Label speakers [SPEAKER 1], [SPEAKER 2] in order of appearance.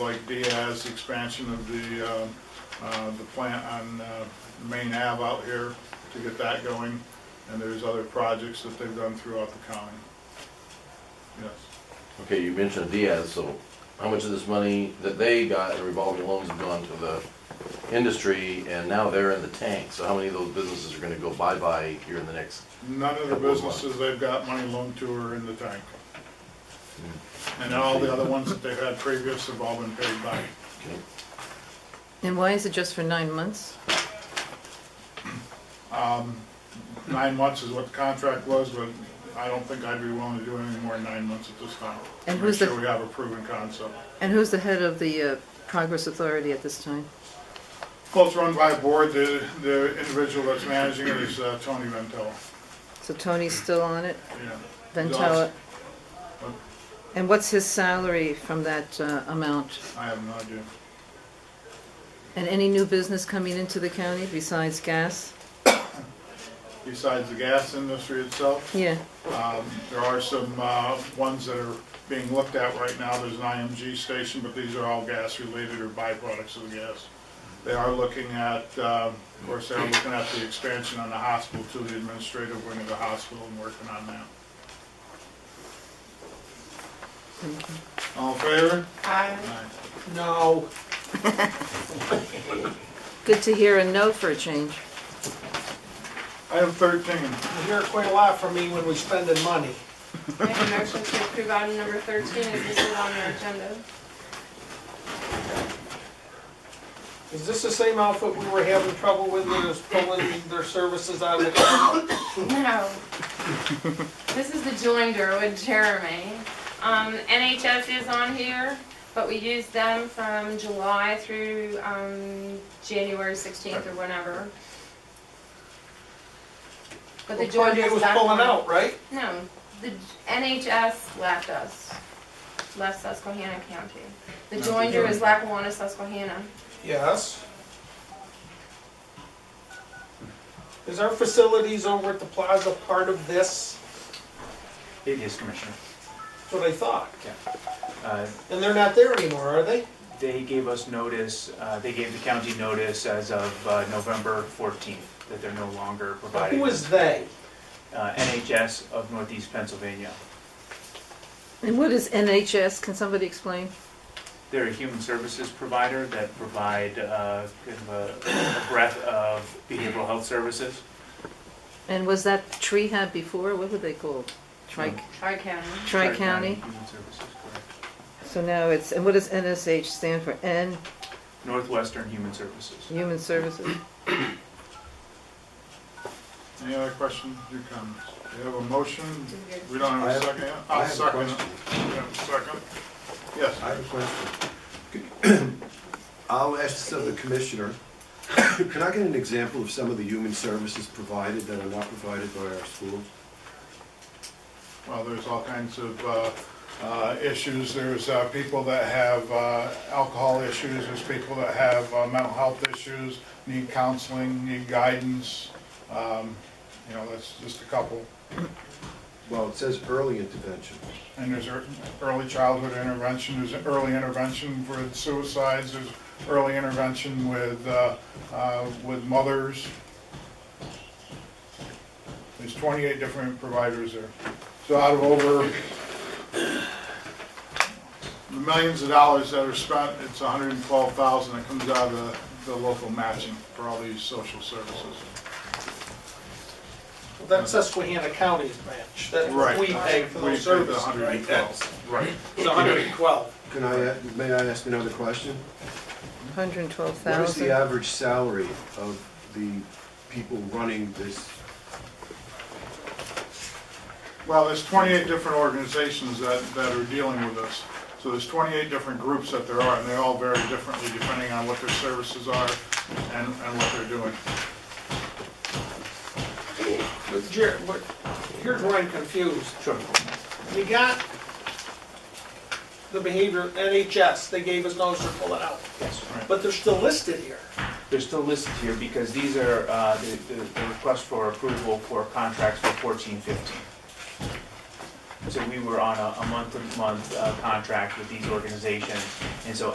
[SPEAKER 1] Like Diaz, expansion of the, uh, uh, the plant on, uh, Main Ave out here to get that going. And there's other projects that they've done throughout the county. Yes.
[SPEAKER 2] Okay, you mentioned Diaz, so how much of this money that they got in revolving loans have gone to the industry and now they're in the tank? So how many of those businesses are gonna go bye-bye here in the next?
[SPEAKER 1] None of the businesses they've got money loaned to are in the tank. And all the other ones that they've had previous have all been paid back.
[SPEAKER 3] And why is it just for nine months?
[SPEAKER 1] Nine months is what the contract was, but I don't think I'd be willing to do anything more than nine months at this time.
[SPEAKER 3] And who's the-
[SPEAKER 1] Make sure we have a proven concept.
[SPEAKER 3] And who's the head of the uh, Progress Authority at this time?
[SPEAKER 1] Well, it's run by a board, the, the individual that's managing it is uh, Tony Ventella,
[SPEAKER 3] So Tony's still on it,
[SPEAKER 1] yeah.
[SPEAKER 3] Ventella?
[SPEAKER 1] What?
[SPEAKER 3] And what's his salary from that uh, amount?
[SPEAKER 1] I have no idea.
[SPEAKER 3] And any new business coming into the county besides gas?
[SPEAKER 1] Besides the gas industry itself,
[SPEAKER 3] Yeah,
[SPEAKER 1] um, there are some, uh, ones that are being looked at right now. There's an IMG station, but these are all gas-related or byproducts of the gas. They are looking at, um, of course, they're looking at the expansion on the hospital to the administrative wing of the hospital and working on that.
[SPEAKER 3] thank you.
[SPEAKER 1] All in favor?
[SPEAKER 4] Aye.
[SPEAKER 1] Aye.
[SPEAKER 4] No.
[SPEAKER 3] Good to hear a no for a change.
[SPEAKER 1] Item thirteen,
[SPEAKER 4] You hear quite a lot from me when we spending money.
[SPEAKER 5] Make a motion to approve item number 13 is listed on your agenda.
[SPEAKER 4] Is this the same outfit we were having trouble with that is pulling their services out of the county?
[SPEAKER 5] No. This is the joinder with Jeremy. Um, NHS is on here, but we used them from July through, um, January 16th or whenever. But the
[SPEAKER 4] Part of
[SPEAKER 5] joinder
[SPEAKER 4] it
[SPEAKER 5] is
[SPEAKER 4] was
[SPEAKER 5] back on.
[SPEAKER 4] pulling out, right?
[SPEAKER 5] No, the NHS left us, left Susquehanna County. The
[SPEAKER 1] Not the
[SPEAKER 5] joinder is
[SPEAKER 1] joinder.
[SPEAKER 5] Lackawanna, Susquehanna.
[SPEAKER 4] Yes. Is our facilities over at the plaza part of this?
[SPEAKER 6] It is, Commissioner.
[SPEAKER 4] That's what I thought.
[SPEAKER 6] Uh,
[SPEAKER 4] And they're not there anymore, are they?
[SPEAKER 6] They gave us notice, uh, they gave the county notice as of uh, November 14th that they're no longer providing.
[SPEAKER 4] Who is they?
[SPEAKER 6] uh, NHS of Northeast Pennsylvania.
[SPEAKER 3] And what is NHS? Can somebody explain?
[SPEAKER 6] They're a human services provider that provide uh, kind of a a breadth of behavioral health services.
[SPEAKER 3] And was that tree had before? What were they called? Tri,
[SPEAKER 5] Tri-County.
[SPEAKER 3] tri-county?
[SPEAKER 6] Human Services, correct.
[SPEAKER 3] So now it's, and what does NSH stand for? N,
[SPEAKER 6] Northwestern Human Services.
[SPEAKER 3] Human Services?
[SPEAKER 1] any other questions or comments? We have a motion, we don't
[SPEAKER 7] I
[SPEAKER 1] have a
[SPEAKER 7] have-
[SPEAKER 1] second. yet?
[SPEAKER 7] I
[SPEAKER 1] I'll
[SPEAKER 7] have a
[SPEAKER 1] second. it.
[SPEAKER 7] question.
[SPEAKER 1] We have a Second? Yes,
[SPEAKER 7] I have a question. I'll ask this of the commissioner. Can I get an example of some of the human services provided that are not provided by our schools?
[SPEAKER 1] well, there's all kinds of uh, uh, issues. There's uh, people that have uh, alcohol issues, there's people that have uh, mental health issues, need counseling, need guidance. Um, You know, that's just a couple.
[SPEAKER 7] Well, it says early intervention.
[SPEAKER 1] And there's ear- early childhood intervention, there's an early intervention with suicides, there's early intervention with, uh, uh, with mothers. There's 28 different providers there. So out of over the millions of dollars that are spent, it's 112,000 that comes out of the, the local matching for all these social services.
[SPEAKER 4] Well, That's Susquehanna County's branch. That's
[SPEAKER 1] Right.
[SPEAKER 4] what we pay for
[SPEAKER 1] We pay
[SPEAKER 4] those
[SPEAKER 1] the
[SPEAKER 4] services, right?
[SPEAKER 1] 112.
[SPEAKER 4] That's
[SPEAKER 1] Right.
[SPEAKER 4] It's hundred and twelve.
[SPEAKER 7] Can I, a- may I ask another question? What is the
[SPEAKER 3] 112,000?
[SPEAKER 7] average salary of the people running this?
[SPEAKER 1] Well, there's 28 different organizations that, that are dealing with this. So there's 28 different groups that there are, and they all vary differently depending on what their services are and, and what they're doing.
[SPEAKER 4] But Jer, but here's where I'm confused.
[SPEAKER 6] Sure.
[SPEAKER 4] We got the behavior, NHS, they gave us notice to pull it out,
[SPEAKER 6] Yes.
[SPEAKER 4] but they're still listed here.
[SPEAKER 6] They're still listed here because these are uh, the the- the request for approval for contracts for fourteen fifteen. So we were on a a month-to-month uh, contract with these organizations, and so